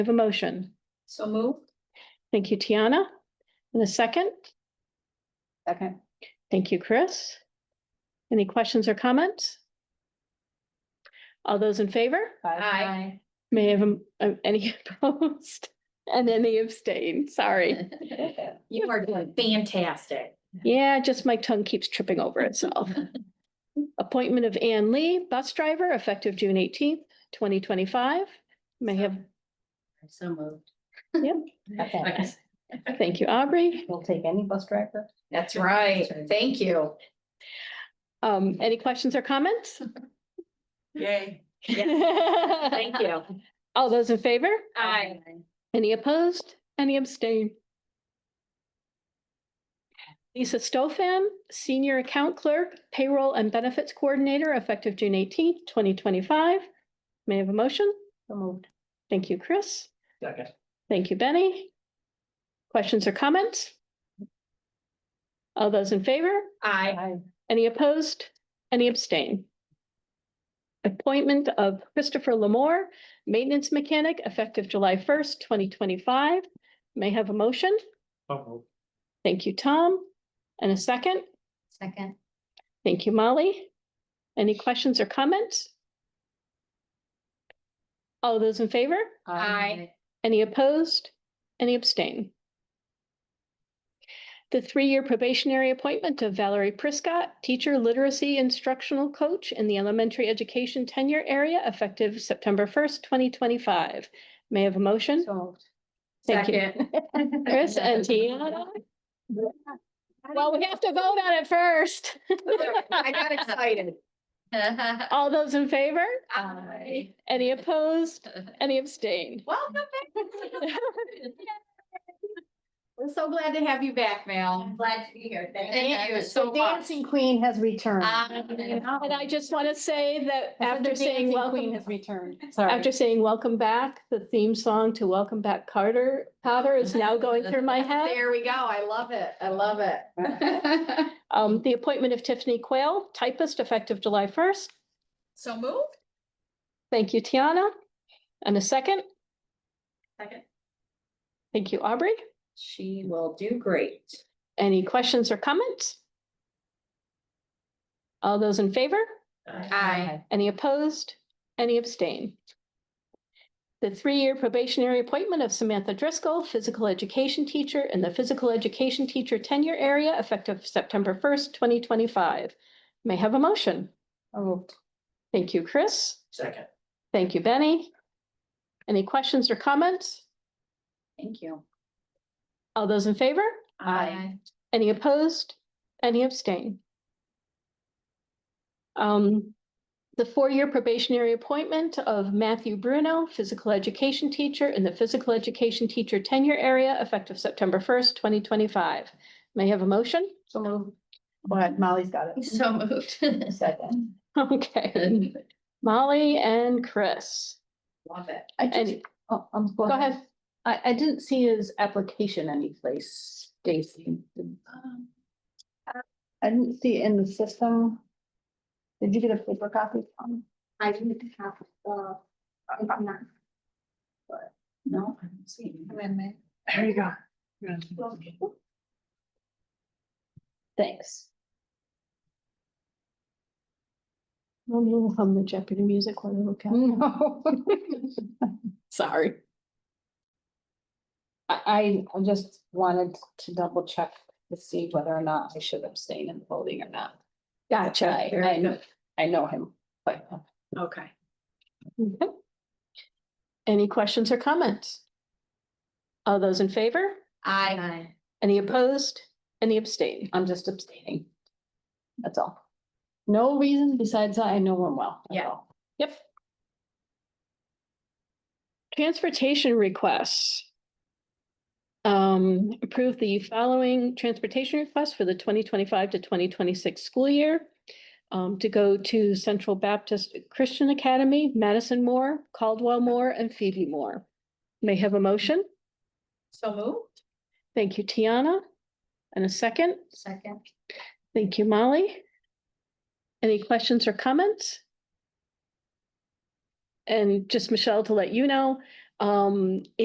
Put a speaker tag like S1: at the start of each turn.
S1: I have a motion.
S2: So moved.
S1: Thank you, Tiana. And a second.
S2: Second.
S1: Thank you, Chris. Any questions or comments? All those in favor?
S2: Aye.
S1: May I have a- um, any opposed and any abstain? Sorry.
S2: You are doing fantastic.
S1: Yeah, just my tongue keeps tripping over itself. Appointment of Ann Lee, bus driver, effective June eighteenth, twenty twenty-five. May I have,
S2: So moved.
S3: Okay,
S1: thank you, Aubrey.
S3: we'll take any bus driver.
S2: That's right. Thank you.
S1: Um, any questions or comments?
S2: Yay.
S1: Thank
S2: Thank you.
S1: All those in favor?
S2: Aye.
S1: Any opposed? Any abstain? Lisa Stofan, Senior Account Clerk, Payroll and Benefits Coordinator, effective June eighteenth, twenty twenty-five. May I have a motion?
S3: So moved.
S1: Thank you, Chris.
S4: Second.
S1: Thank you, Benny. Questions or comments? All those in favor?
S2: Aye.
S1: Any opposed? Any abstain? Appointment of Christopher Lamore, Maintenance Mechanic, effective July first, twenty twenty-five. May I have a motion?
S4: So moved.
S1: Thank you, Tom. And a second?
S2: Second.
S1: Thank you, Molly. Any questions or comments? All those in favor?
S2: Aye.
S1: Any opposed? Any abstain? The three-year probationary appointment of Valerie Priscott, Teacher Literacy Instructional Coach in the Elementary Education Tenure Area, effective September first, twenty twenty-five. May I have a motion?
S3: So moved.
S1: Thank you.
S2: Second.
S1: Chris and Tiana? Well, we have to vote on it first.
S2: I got excited.
S1: All those in favor?
S2: Aye.
S1: Any opposed? Any abstained?
S2: Welcome back. We're so glad to have you back, Mel.
S3: Glad to be here.
S2: Thank you so much.
S3: Dancing queen has returned.
S2: Um,
S1: And I just want to say that
S3: I said the
S1: after saying
S3: dancing
S1: welcome
S3: Queen has returned. Sorry.
S1: After saying welcome back, the theme song to Welcome Back Carter Potter is now going through my head.
S2: There we go. I love it. I love it.
S1: Um, the appointment of Tiffany Quayle, typist effective July first.
S2: So moved.
S1: Thank you, Tiana. And a second.
S2: Second.
S1: Thank you, Aubrey.
S2: She will do great.
S1: Any questions or comments? All those in favor?
S2: Aye.
S1: Any opposed? Any abstain? The three-year probationary appointment of Samantha Driscoll, physical education teacher in the physical education teacher tenure area effective September first, twenty twenty-five. May I have a motion.
S3: So moved.
S1: Thank you, Chris.
S4: Second.
S1: Thank you, Benny. Any questions or comments?
S2: Thank you.
S1: All those in favor?
S2: Aye.
S1: Any opposed? Any abstain? Um, the four-year probationary appointment of Matthew Bruno, physical education teacher in the physical education teacher tenure area effective September first, twenty twenty-five. May I have a motion?
S3: So moved. But Molly's got it.
S2: So moved.
S3: Second.
S1: Okay, Molly and Chris.
S2: Love it.
S3: I just,
S1: And
S3: oh, um,
S1: go ahead.
S3: I, I didn't see his application anyplace, Stacy. Did- Um, I didn't see it in the system. Did you get a paper copy? Tom?
S5: I didn't have, uh, I'm not,
S3: No. I didn't see it. There you go. Thanks.
S1: I'm gonna hum the Jeopardy music while I look at it.
S3: Sorry. I, I just wanted to double check to see whether or not I should abstain in voting or not. I,
S1: Gotcha.
S3: I know, I know him, but
S2: Okay.
S1: Okay. Any questions or comments? All those in favor?
S2: Aye.
S1: Any opposed? Any abstain?
S3: I'm just abstaining. That's all. No reason besides that I know him well. that's
S2: Yeah.
S3: all.
S1: Yep. Transportation requests. Um, approve the following transportation requests for the twenty twenty-five to twenty twenty-six school year. Um, to go to Central Baptist Christian Academy, Madison Moore, Caldwell Moore, and Phoebe Moore. May I have a motion.
S2: So moved.
S1: Thank you, Tiana. And a second.
S2: Second.
S1: Thank you, Molly. Any questions or comments? And just Michelle, to let you know, Um,